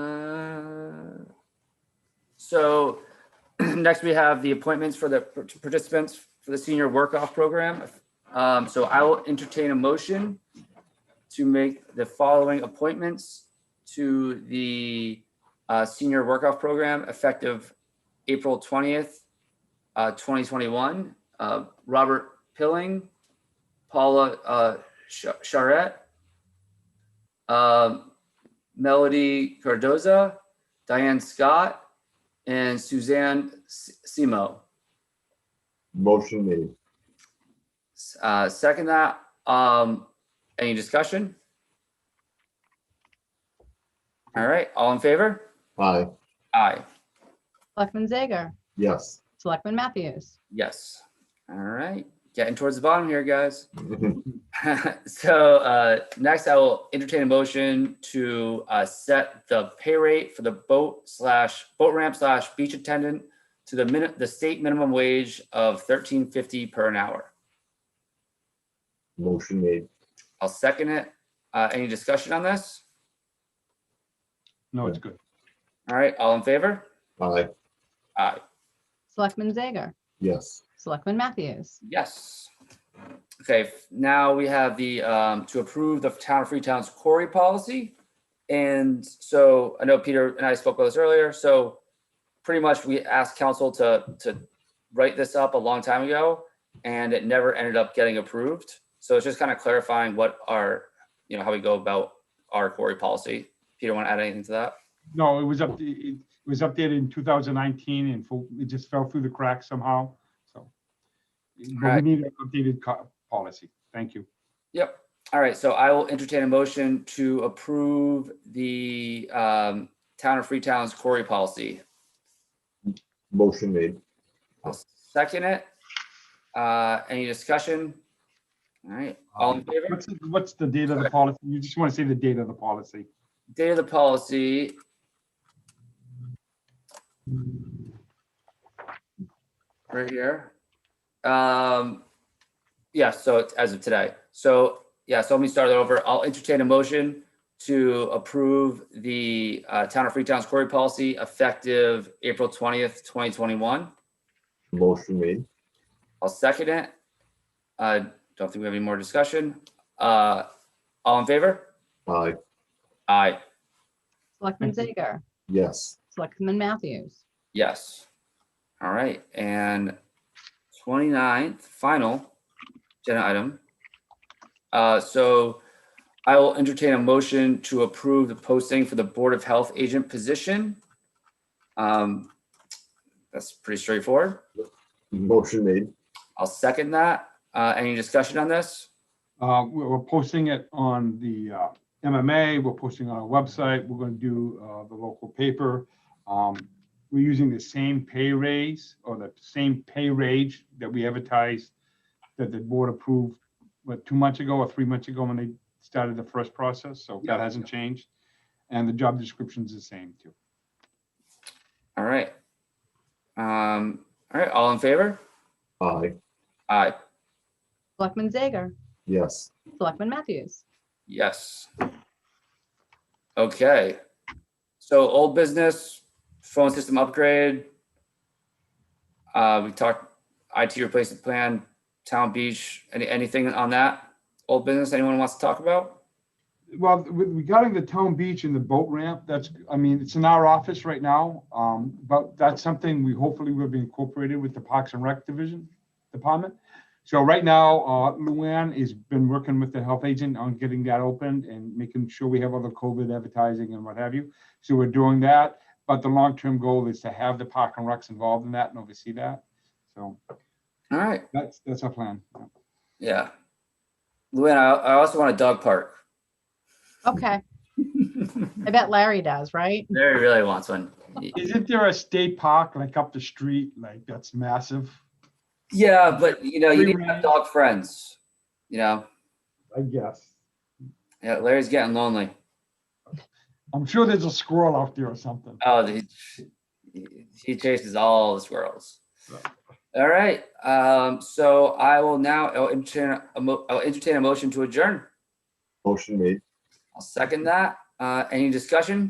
Uh, So next we have the appointments for the participants for the senior work-off program. Um, So I will entertain a motion to make the following appointments to the uh, senior work-off program effective April 20th, uh, 2021. Uh, Robert Pilling, Paula uh, Cha- Charette, um, Melody Cardoza, Diane Scott, and Suzanne S- Simo. Motion made. Uh, Second that, um, any discussion? All right, all in favor? Aye, Aye, Selectman Zager? yes. Selectman Matthews? yes. All right, getting towards the bottom here, guys. So uh, next, I will entertain a motion to uh, set the pay rate for the boat slash boat ramp slash beach attendant to the minute, the state minimum wage of thirteen fifty per an hour. Motion made. I'll second it. Uh, Any discussion on this? No, it's good. All right, all in favor? Aye, Aye, Selectman Zager? yes. Selectman Matthews? yes. Okay, f- now we have the, um, to approve the town of Freetown's quarry policy. And so I know Peter and I spoke about this earlier, so pretty much we asked council to, to write this up a long time ago and it never ended up getting approved. So it's just kind of clarifying what our, you know, how we go about our quarry policy. Peter, want to add anything to that? No, it was up, it was updated in 2019 and fo- it just fell through the cracks somehow, so. But we Right. need an updated co- policy. Thank you. Yep. All right. So I will entertain a motion to approve the um, town of Freetown's quarry policy. Motion made. I'll second it. Uh, any discussion? All right. All in favor? What's, the- what's the date of the policy? You just want to say the date of the policy. Date of the policy. Right here. Um, yeah, so it's as of today. So, yeah, so let me start it over. I'll entertain a motion to approve the uh, Town of Freetown's quarry policy effective April twentieth, twenty twenty-one. Motion made. I'll second it. I don't think we have any more discussion. Uh, all in favor? Aye, Aye, Selectman Thank Zager? yes. Selectman Matthews? yes. All right, and 29th, final agenda item. Uh, so I will entertain a motion to approve the posting for the Board of Health Agent position. Um, that's pretty straightforward. Motion made. I'll second that. Uh, any discussion on this? Uh, we- We're posting it on the uh, MMA, we're posting on our website, we're going to do uh, the local paper. Um, We're using the same pay raise or the same pay range that we advertised that the board approved, what, two months ago or three months ago when they started the first process, so that Yeah. hasn't changed. And the job description's the same too. All right. Um, all right, all in favor? Aye, Aye, Selectman Zager? yes. Selectman Matthews? yes. Okay. So old business, phone system upgrade. Uh, we talked IT replacement plan, town beach, any, anything on that? Old business, anyone wants to talk about? Well, with- regarding the town beach and the boat ramp, that's, I mean, it's in our office right now, um, but that's something we hopefully will be incorporated with the Parks and Rec Division Department. So right now, uh, Luann has been working with the health agent on getting that opened and making sure we have all the COVID advertising and what have you. So we're doing that, but the long-term goal is to have the Park and Recs involved in that and oversee that. So All right, that's, that's our plan. yeah. Luann, I, I also want a dog park. Okay, I bet Larry does, right? Larry really wants one. Isn't there a state park like up the street, like that's massive? Yeah, but you know, you Free need to have range. dog friends, you know? I guess. Yeah, Larry's getting lonely. I'm sure there's a squirrel out there or something. Oh, he, he- he chases all the squirrels. All right, um, so I will now, I'll entertain, a mo- I'll entertain a motion to adjourn. Motion made. I'll second that. Uh, any discussion?